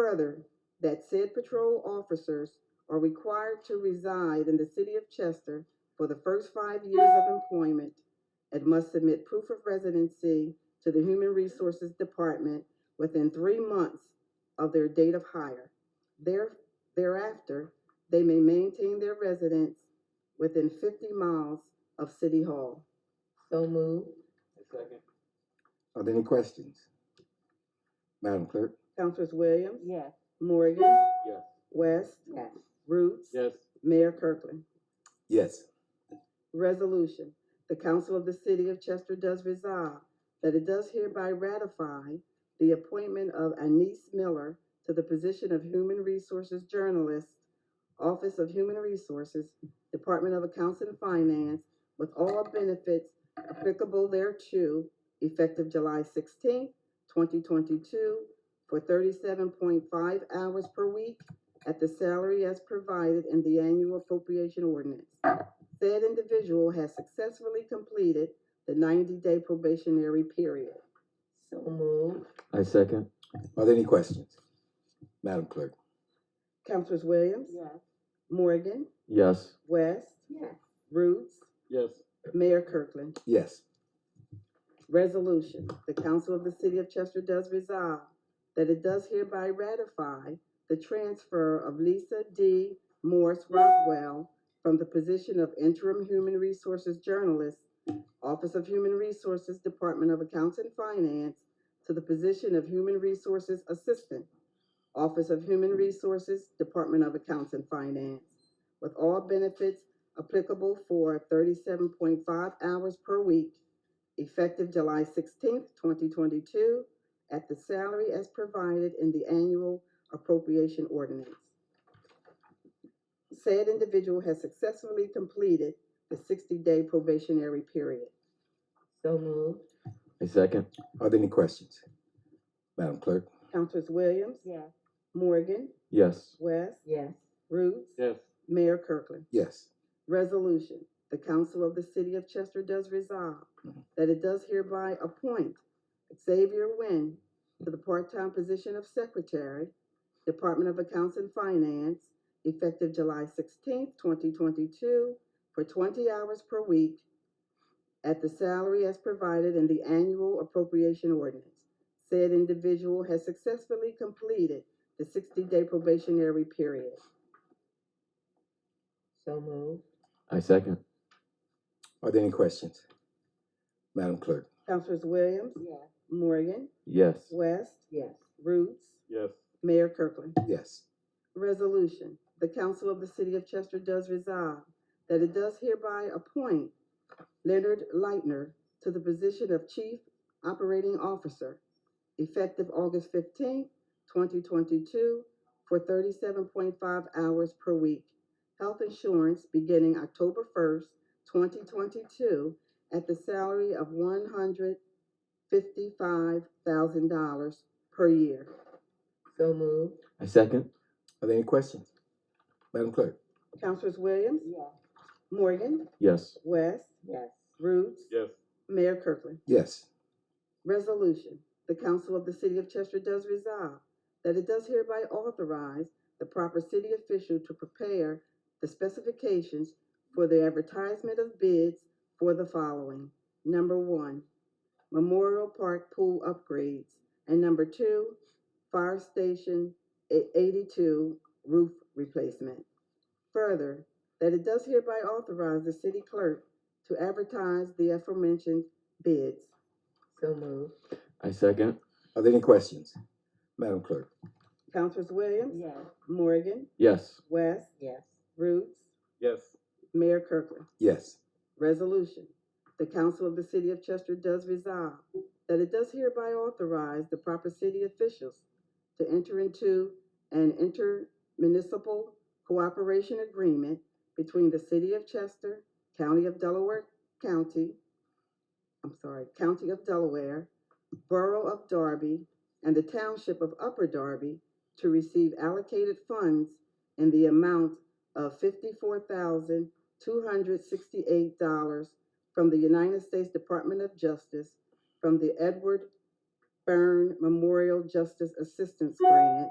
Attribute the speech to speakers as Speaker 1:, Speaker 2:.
Speaker 1: Further, that said patrol officers are required to reside in the city of Chester for the first five years of employment and must submit proof of residency to the Human Resources Department within three months of their date of hire. There- Thereafter, they may maintain their residence within fifty miles of City Hall.
Speaker 2: So moved.
Speaker 3: Second.
Speaker 4: Are there any questions? Madam Clerk?
Speaker 1: Councilors Williams,
Speaker 2: Yes.
Speaker 1: Morgan,
Speaker 3: Yes.
Speaker 1: West,
Speaker 2: Yes.
Speaker 1: Roots.
Speaker 3: Yes.
Speaker 1: Mayor Kirkland.
Speaker 4: Yes.
Speaker 1: Resolution, the Council of the City of Chester does resolve that it does hereby ratify the appointment of Anise Miller to the position of Human Resources Journalist, Office of Human Resources, Department of Accounts and Finance, with all benefits applicable thereto, effective July sixteenth, twenty twenty-two, for thirty-seven point five hours per week at the salary as provided in the annual appropriation ordinance. Said individual has successfully completed the ninety-day probationary period.
Speaker 2: So moved.
Speaker 3: I second.
Speaker 4: Are there any questions? Madam Clerk?
Speaker 1: Councilors Williams,
Speaker 2: Yes.
Speaker 1: Morgan,
Speaker 3: Yes.
Speaker 1: West,
Speaker 2: Yes.
Speaker 1: Roots,
Speaker 3: Yes.
Speaker 1: Mayor Kirkland.
Speaker 4: Yes.
Speaker 1: Resolution, the Council of the City of Chester does resolve that it does hereby ratify the transfer of Lisa D. Morse Rockwell from the position of interim human resources journalist, Office of Human Resources, Department of Accounts and Finance, to the position of human resources assistant, Office of Human Resources, Department of Accounts and Finance, with all benefits applicable for thirty-seven point five hours per week effective July sixteenth, twenty twenty-two, at the salary as provided in the annual appropriation ordinance. Said individual has successfully completed the sixty-day probationary period.
Speaker 2: So moved.
Speaker 3: I second.
Speaker 4: Are there any questions? Madam Clerk?
Speaker 1: Councilors Williams,
Speaker 2: Yes.
Speaker 1: Morgan,
Speaker 3: Yes.
Speaker 1: West,
Speaker 2: Yes.
Speaker 1: Roots,
Speaker 3: Yes.
Speaker 1: Mayor Kirkland.
Speaker 4: Yes.
Speaker 1: Resolution, the Council of the City of Chester does resolve that it does hereby appoint Xavier Nguyen to the part-time position of Secretary, Department of Accounts and Finance, effective July sixteenth, twenty twenty-two, for twenty hours per week at the salary as provided in the annual appropriation ordinance. Said individual has successfully completed the sixty-day probationary period.
Speaker 2: So moved.
Speaker 3: I second.
Speaker 4: Are there any questions? Madam Clerk?
Speaker 1: Councilors Williams,
Speaker 2: Yes.
Speaker 1: Morgan,
Speaker 3: Yes.
Speaker 1: West,
Speaker 2: Yes.
Speaker 1: Roots,
Speaker 3: Yes.
Speaker 1: Mayor Kirkland.
Speaker 4: Yes.
Speaker 1: Resolution, the Council of the City of Chester does resolve that it does hereby appoint Leonard Leitner to the position of Chief Operating Officer, effective August fifteenth, twenty twenty-two, for thirty-seven point five hours per week. Health insurance beginning October first, twenty twenty-two, at the salary of one hundred fifty-five thousand dollars per year.
Speaker 2: So moved.
Speaker 3: I second.
Speaker 4: Are there any questions? Madam Clerk?
Speaker 1: Councilors Williams,
Speaker 2: Yes.
Speaker 1: Morgan,
Speaker 3: Yes.
Speaker 1: West,
Speaker 2: Yes.
Speaker 1: Roots,
Speaker 3: Yes.
Speaker 1: Mayor Kirkland.
Speaker 4: Yes.
Speaker 1: Resolution, the Council of the City of Chester does resolve that it does hereby authorize the proper city official to prepare the specifications for the advertisement of bids for the following. Number one, Memorial Park Pool Upgrades. And number two, Fire Station e- eighty-two Roof Replacement. Further, that it does hereby authorize the city clerk to advertise the aforementioned bids.
Speaker 2: So moved.
Speaker 3: I second.
Speaker 4: Are there any questions? Madam Clerk?
Speaker 1: Councilors Williams?
Speaker 2: Yes.
Speaker 1: Morgan,
Speaker 3: Yes.
Speaker 1: West,
Speaker 2: Yes.
Speaker 1: Roots,
Speaker 3: Yes.
Speaker 1: Mayor Kirkland.
Speaker 4: Yes.
Speaker 1: Resolution, the Council of the City of Chester does resolve that it does hereby authorize the proper city officials to enter into an intermunicipal cooperation agreement between the City of Chester, County of Delaware County, I'm sorry, County of Delaware, Borough of Darby, and the Township of Upper Darby to receive allocated funds in the amount of fifty-four thousand two hundred sixty-eight dollars from the United States Department of Justice from the Edward Byrne Memorial Justice Assistance Grant